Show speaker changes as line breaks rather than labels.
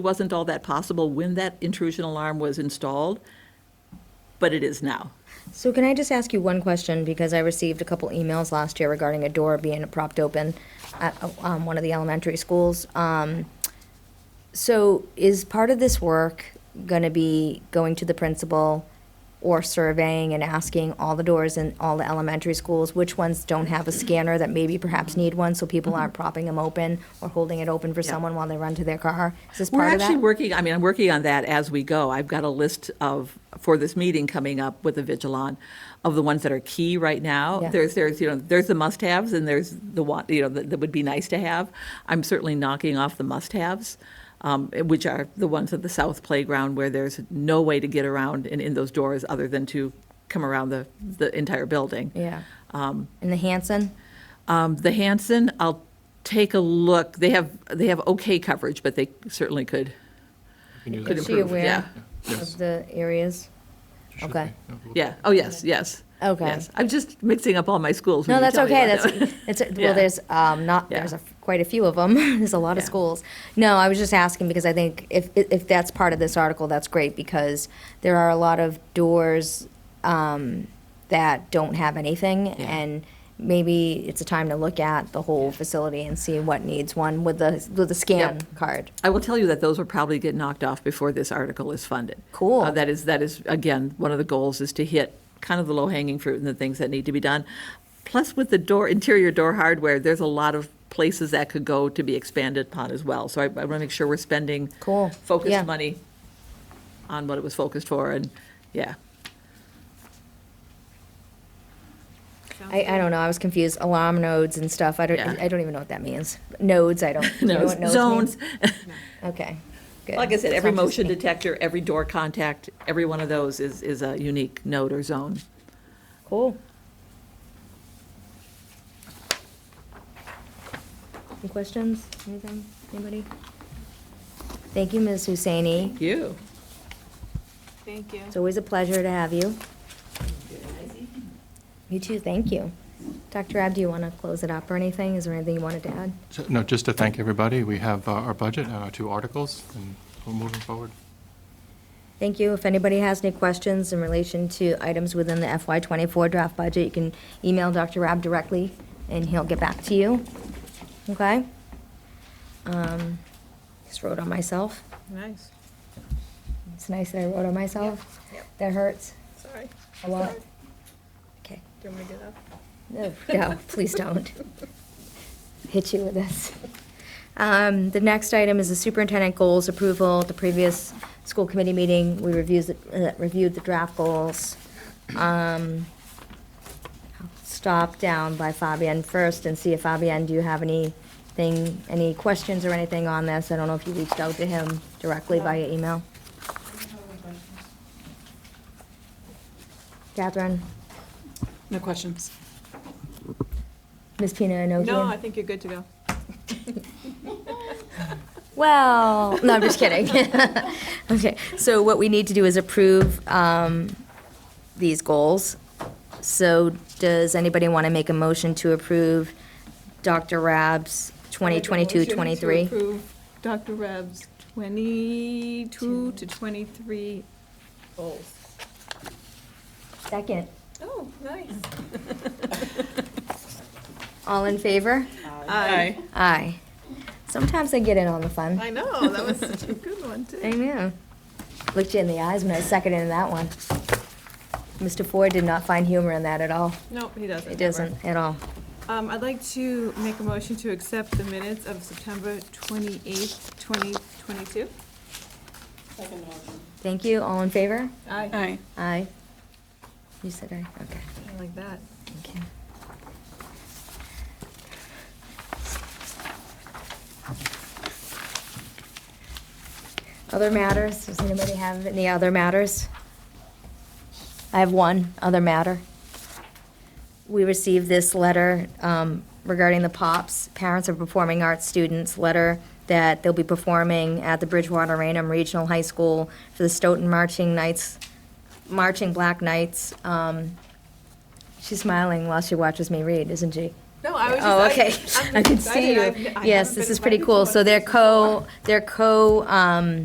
wasn't all that possible when that intrusion alarm was installed, but it is now.
So can I just ask you one question, because I received a couple emails last year regarding a door being propped open at um, one of the elementary schools. Um, So is part of this work going to be going to the principal or surveying and asking all the doors in all the elementary schools, which ones don't have a scanner that maybe perhaps need one, so people aren't propping them open or holding it open for
Yeah.
someone while they run to their car? Is this
We're
part of that?
actually working, I mean, I'm working on that as we go. I've got a list of, for this meeting coming up with the Vigilon, of the ones that are key right now.
Yeah.
There's, there's, you know, there's the must-haves and there's the one, you know, that that would be nice to have. I'm certainly knocking off the must-haves, um, which are the ones at the south playground where there's no way to get around and in those doors other than to come around the, the entire building.
Yeah. In the Hanson?
Um, the Hanson, I'll take a look. They have, they have okay coverage, but they certainly could,
Can do
could
that.
Is she
improve.
aware?
Yeah.
Yes.
Of the areas?
Should
Okay.
be. Yeah, we'll-
Yeah, oh, yes, yes.
Okay.
Yes. I'm just mixing up all my schools. when
No,
you
that's
tell me
okay.
about that.
That's it's a-
Yeah.
well. There's um, not
Yeah.
there's a, quite a few of them. there's a lot of
Yeah.
schools. No, I was just asking because I think if if that's part of this article, that's great because there are a lot of doors um, that don't have anything,
Yeah.
and maybe it's a time to look at the whole facility and see what needs one with the with the scan
Yep.
card.
I will tell you that those will probably get knocked off before this article is funded.
Cool.
Uh, That is, that is, again, one of the goals is to hit kind of the low-hanging fruit and the things that need to be done. Plus with the door, interior door hardware, there's a lot of places that could go to be expanded upon as well. So I, I want to make sure we're spending.
Cool. Yeah.
Focused money on what it was focused for and, yeah.
I, I don't know. I was confused. Alarm nodes and stuff. I don't
Yeah.
I don't even know what that means. Nodes. I don't. do you know what nodes
Zones.
means? Okay. Good.
Like I said,
It's
every
not just
motion
me.
detector, every door contact, every one of those is, is a unique node or zone.
Cool. Any questions, anything, anybody? Thank you, Ms. Husseini.
You.
Thank you.
It's always a pleasure to have you. You too, thank you. Dr. Ab, do you want to close it up or anything? Is there anything you wanted to add?
So- No, just to thank everybody. We have uh, our budget and our two articles, and we're moving forward.
Thank you. If anybody has any questions in relation to items within the FY '24 draft budget, you can email Dr. Rab directly, and he'll get back to you. Okay? Um, Just wrote on myself.
Nice,
It's nice that I wrote on myself. That hurts
sorry.
a lot. Okay.
Do you want me to get up?
No, no, please don't. Hit you with this. Um, The next item is the superintendent goals approval. At The previous school committee meeting, we reviews- uh, reviewed the draft goals. Um, I'll Stop down by Fabian first and see if Fabian, do you have anything, any questions or anything on this? I don't know if you reached out to him directly via email. Catherine,
No questions?
Ms. Pina Inokian?
No, I think you're good to go.
Well, no, I'm just kidding. okay, so what we need to do is approve um, these goals. So does anybody want to make a motion to approve Dr. Rab's
Make a motion To
2022-23?
approve Dr. Reb's 22 to 23 goals.
Second.
Oh, nice.
All in favor?
Aye.
Aye. Sometimes I get in on the fun.
I know, that was such a good one,
I
too.
know. Looked you in the eyes when I seconded that one. Mr. Ford did not find humor in that at all.
Nope, he doesn't.
It
never.
doesn't at all.
Um, I'd like to make a motion to accept the minutes of September 28th, 2022.
Thank you. All in favor?
Aye. Aye.
Aye. You said aye, okay.
I like that.
Thank you. Other matters, does anybody have any other matters? I have one other matter. We received this letter um, regarding the POPs, Parents of Performing Arts Students, letter that they'll be performing at the Bridgewater Rainham Regional High School for the Stoughton Marching Knights, Marching Black Knights, um, She's smiling while she watches me read, isn't she?
No, I was just.
Oh,
I-
okay.
I'm
I can
excited.
see
I've- I
you.
haven't
Yes,
been
this is
invited
pretty
to
cool.
one
So they're
since before.
co, they're co, um,